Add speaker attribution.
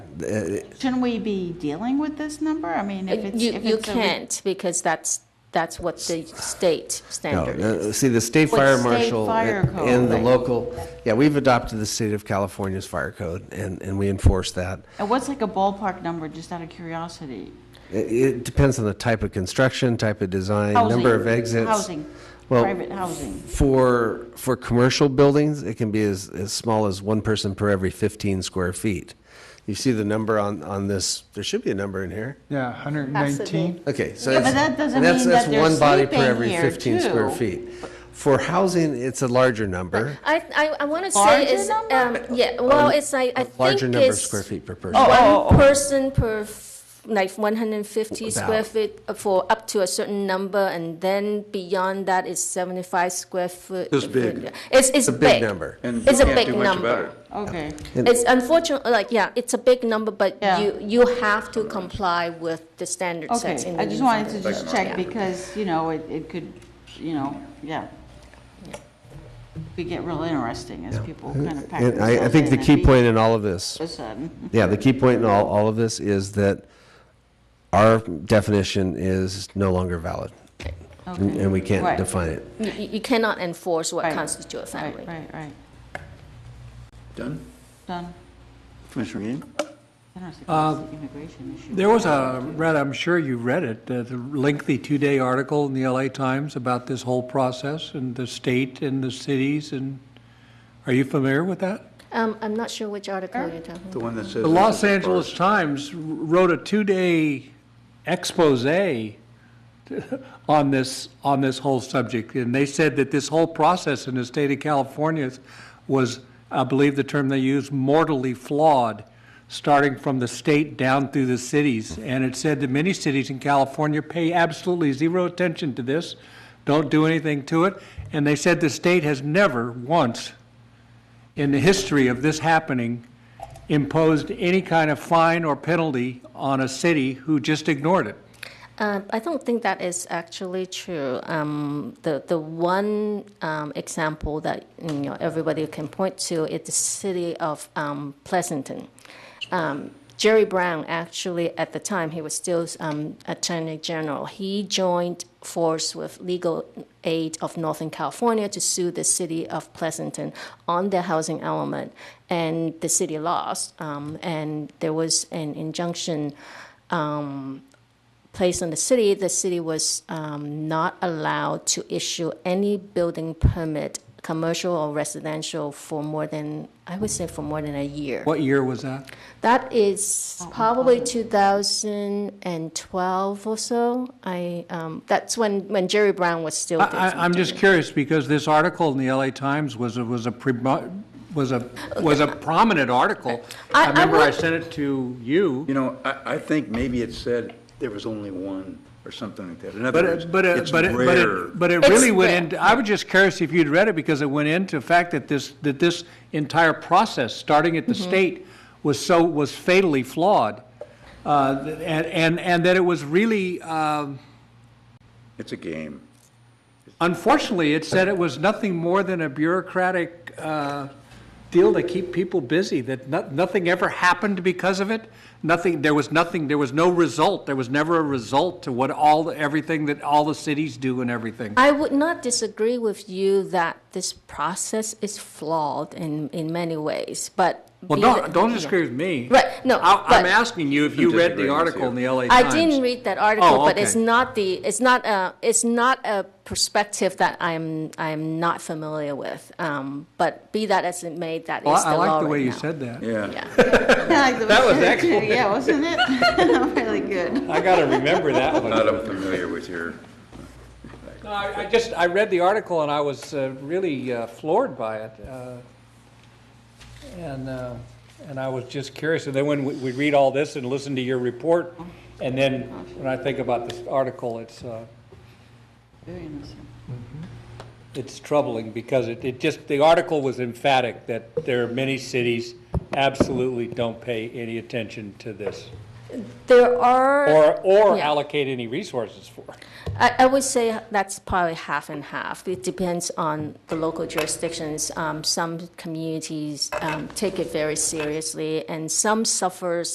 Speaker 1: uh,
Speaker 2: Shouldn't we be dealing with this number? I mean, if it's.
Speaker 3: Uh, You,
Speaker 2: if
Speaker 3: you
Speaker 2: it's a re-
Speaker 3: can't, because that's, that's what the state
Speaker 1: No,
Speaker 3: standard is.
Speaker 1: uh, see, the state
Speaker 2: What
Speaker 1: fire
Speaker 2: state
Speaker 1: marshal
Speaker 2: fire
Speaker 1: and
Speaker 2: code,
Speaker 1: and the
Speaker 2: right.
Speaker 1: local, yeah, we've adopted the state of California's fire code, and, and we enforce that.
Speaker 2: And uh, what's like a ballpark number, just out of curiosity?
Speaker 1: It, it depends on the type of construction, type of design, number
Speaker 2: Housing,
Speaker 1: of exits.
Speaker 2: Housing,
Speaker 1: Well,
Speaker 2: private housing.
Speaker 1: For, for commercial buildings, it can be as, as small as one person per every 15 square feet. You see the number on, on this, there should be a number in here.
Speaker 4: Yeah, 119.
Speaker 1: Okay, so
Speaker 2: Yeah, but
Speaker 1: it's-
Speaker 2: that doesn't
Speaker 1: and that's-
Speaker 2: mean
Speaker 1: that's
Speaker 2: that they're
Speaker 1: one body per
Speaker 2: sleeping
Speaker 1: every
Speaker 2: here,
Speaker 1: 15 square
Speaker 2: too.
Speaker 1: feet. For housing, it's a larger number.
Speaker 3: I, I, I want to say
Speaker 2: Larger
Speaker 3: is, um,
Speaker 2: number?
Speaker 3: yeah, well, it's like, I
Speaker 1: Larger
Speaker 3: think
Speaker 1: number of
Speaker 3: it's
Speaker 1: square feet per
Speaker 3: Oh,
Speaker 1: person.
Speaker 3: one person per, f- like, 150 square
Speaker 1: About.
Speaker 3: feet for up to a certain number, and then beyond that is 75 square foot.
Speaker 5: It's big.
Speaker 3: It's, it's
Speaker 1: a
Speaker 3: big.
Speaker 1: big number.
Speaker 5: And
Speaker 3: It's a
Speaker 5: you can't
Speaker 3: big
Speaker 5: do much about
Speaker 3: number.
Speaker 5: it.
Speaker 2: Okay.
Speaker 3: It's unfortunate, like, yeah, it's a big number, but
Speaker 2: Yeah.
Speaker 3: you, you have to comply with the standard sets
Speaker 2: Okay,
Speaker 3: in the
Speaker 2: I just wanted to
Speaker 3: uniform.
Speaker 2: just
Speaker 5: Like-
Speaker 2: check because, you know, it, it could, you know, yeah. Could get real interesting as people kind of pack
Speaker 1: And I, I
Speaker 2: themselves
Speaker 1: think the
Speaker 2: in and
Speaker 1: key
Speaker 2: leave
Speaker 1: point in all of this,
Speaker 2: All of a sudden.
Speaker 1: yeah, the key point in all, all of this is that our definition is no longer valid. And and we can't
Speaker 2: Right.
Speaker 1: define it.
Speaker 3: You- You, you cannot enforce what
Speaker 2: Right.
Speaker 3: constitutes a family.
Speaker 2: Right, right, right.
Speaker 5: Done?
Speaker 2: Done.
Speaker 5: Commissioner Yee?
Speaker 2: Interesting, 'cause it's an immigration issue.
Speaker 6: There was a, read, I'm sure you read it, a lengthy two-day article in the LA Times about this whole process and the state and the cities and, are you familiar with that?
Speaker 3: Um, I'm not sure which article you're talking about.
Speaker 5: The one that says.
Speaker 6: The Los Angeles Times wrote a two-day expose on this, on this whole subject. And they said that this whole process in the state of California was, I believe the term they used, mortally flawed, starting from the state down through the cities. And it said that many cities in California pay absolutely zero attention to this, don't do anything to it. And they said the state has never once in the history of this happening imposed any kind of fine or penalty on a city who just ignored it.
Speaker 3: Um, I don't think that is actually true. Um, the the one um, example that you know everybody can point to is the city of um, Pleasanton. Um, Jerry Brown actually at the time he was still um, Attorney General. He joined force with Legal Aid of Northern California to sue the city of Pleasanton on their housing element, and the city lost. Um, and there was an injunction um, placed on the city, the city was um, not allowed to issue any building permit, commercial or residential, for more than, I would say for more than a year.
Speaker 6: What year was that?
Speaker 3: That is probably 2012 or so. I, um, that's when, when Jerry Brown was still.
Speaker 6: I,
Speaker 3: doing
Speaker 6: I- I'm
Speaker 3: something.
Speaker 6: just curious because this article in the LA Times was a, was a, premo- was a, was a prominent article.
Speaker 3: I- I
Speaker 6: I remember I
Speaker 3: would-
Speaker 6: sent it to you.
Speaker 5: You know, I, I think maybe it said there was only one or something like that. In other
Speaker 6: But
Speaker 5: words,
Speaker 6: it, but it,
Speaker 5: it's
Speaker 6: but it, but
Speaker 5: rare.
Speaker 6: it, but it
Speaker 3: It's
Speaker 6: really went
Speaker 3: rare,
Speaker 6: into, I was just curious if you'd read it because it went into the fact that this, that this entire process, starting at the state, was so, was fatally flawed. Uh, th- and, and, and that it was really, um,
Speaker 5: It's a game.
Speaker 6: unfortunately, it said it was nothing more than a bureaucratic, uh, deal to keep people busy, that no, nothing ever happened because of it. Nothing, there was nothing, there was no result. There was never a result to what all, the- everything that all the cities do and everything.
Speaker 3: I would not disagree with you that this process is flawed in, in many ways, but.
Speaker 6: Well,
Speaker 3: be
Speaker 6: don't,
Speaker 3: the-
Speaker 6: don't
Speaker 3: yeah.
Speaker 6: disagree with me.
Speaker 3: Right, no,
Speaker 6: I- I'm
Speaker 3: but-
Speaker 6: asking you if you read
Speaker 5: disagreeing
Speaker 6: the
Speaker 5: with
Speaker 6: article
Speaker 5: you.
Speaker 6: in the LA
Speaker 3: I
Speaker 6: Times.
Speaker 3: didn't read that article,
Speaker 6: Oh,
Speaker 3: but it's
Speaker 6: okay.
Speaker 3: not the, it's not a, it's not a perspective that I'm, I'm not familiar with. Um, but be that as it may, that is the
Speaker 6: Well,
Speaker 3: law
Speaker 6: I like the way
Speaker 3: right
Speaker 6: you
Speaker 3: now.
Speaker 6: said that.
Speaker 5: Yeah.
Speaker 2: That was excellent. Yeah, wasn't it? Really good.
Speaker 6: I got to remember that
Speaker 5: Not unfamiliar with your,
Speaker 6: I I just, I read the article and I was uh, really uh, floored by it. uh, And, uh, and I was just curious. And then when we- we read all this and listen to your report, and then when I think about this article, it's, uh,
Speaker 2: Very interesting.
Speaker 6: it's troubling because it, it just, the article was emphatic that there are many cities absolutely don't pay any attention to this.
Speaker 3: There are.
Speaker 6: Or, or
Speaker 3: Yeah.
Speaker 6: allocate any resources for.
Speaker 3: I, I would say that's probably half and half. It depends on the local jurisdictions. Um, some communities um, take it very seriously, and some suffers